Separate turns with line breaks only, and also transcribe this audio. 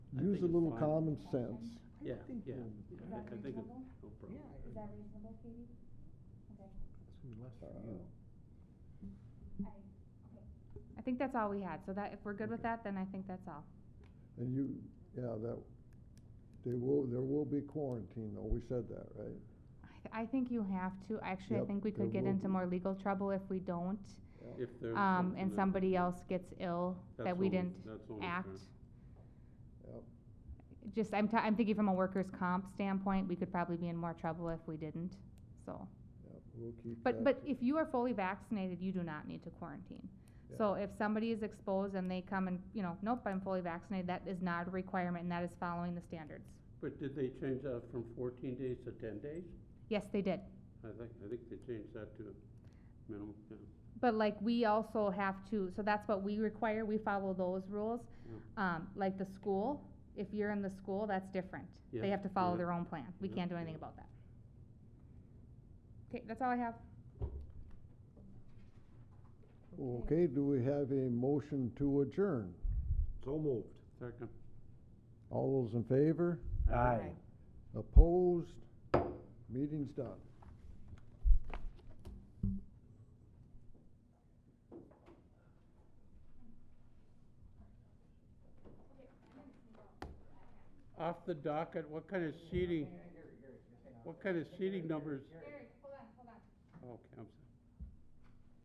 I
use
think
a
it's
little
fine.
common sense.
Yeah,
I think
yeah,
we'll-
yeah,
Is
I
that
I think, it-
reasonable?
no problem.
Yeah.
Is that reasonable, Katie? Okay,
uh,
I, okay.
I think that's all we had, so that, if we're good with that, then I think that's all.
And you, yeah, that, they will, there will be quarantine, though, we said that, right?
I th- I think you have to, actually, I
Yep,
think we
there
could get
will
into
be.
more legal trouble if we don't,
If there's.
um,
something
and
that-
somebody else gets ill
that's
that we
always-
didn't
that's always
act.
Yep.
Just, I'm, t- I'm thinking from a workers' comp standpoint, we could probably be in more trouble if we didn't, so.
Yeah, we'll keep that.
But, but if you are fully vaccinated, you do not need to quarantine. So if somebody is exposed and they come and, you know, nope, I'm fully vaccinated, that is not a requirement, and that is following the standards.
But did they change that from fourteen days to ten days?
Yes, they did.
I think, I think they changed that to minimum, yeah.
But like, we also have to, so that's what we require, we follow those rules.
Yeah.
Um, like the school, if you're in the school, that's different.
Yeah,
They have to follow
yeah.
their own plan, we
Yeah,
can't do anything
yeah.
about that. Okay, that's all I have.
Okay, do we have a motion to adjourn?
So moved.
Second.
All those in favor?
Aye.
Opposed? Meeting's done.
Off the docket, what kind of seating, what kind of seating numbers?
hold on, hold on.
Okay, I'm sorry.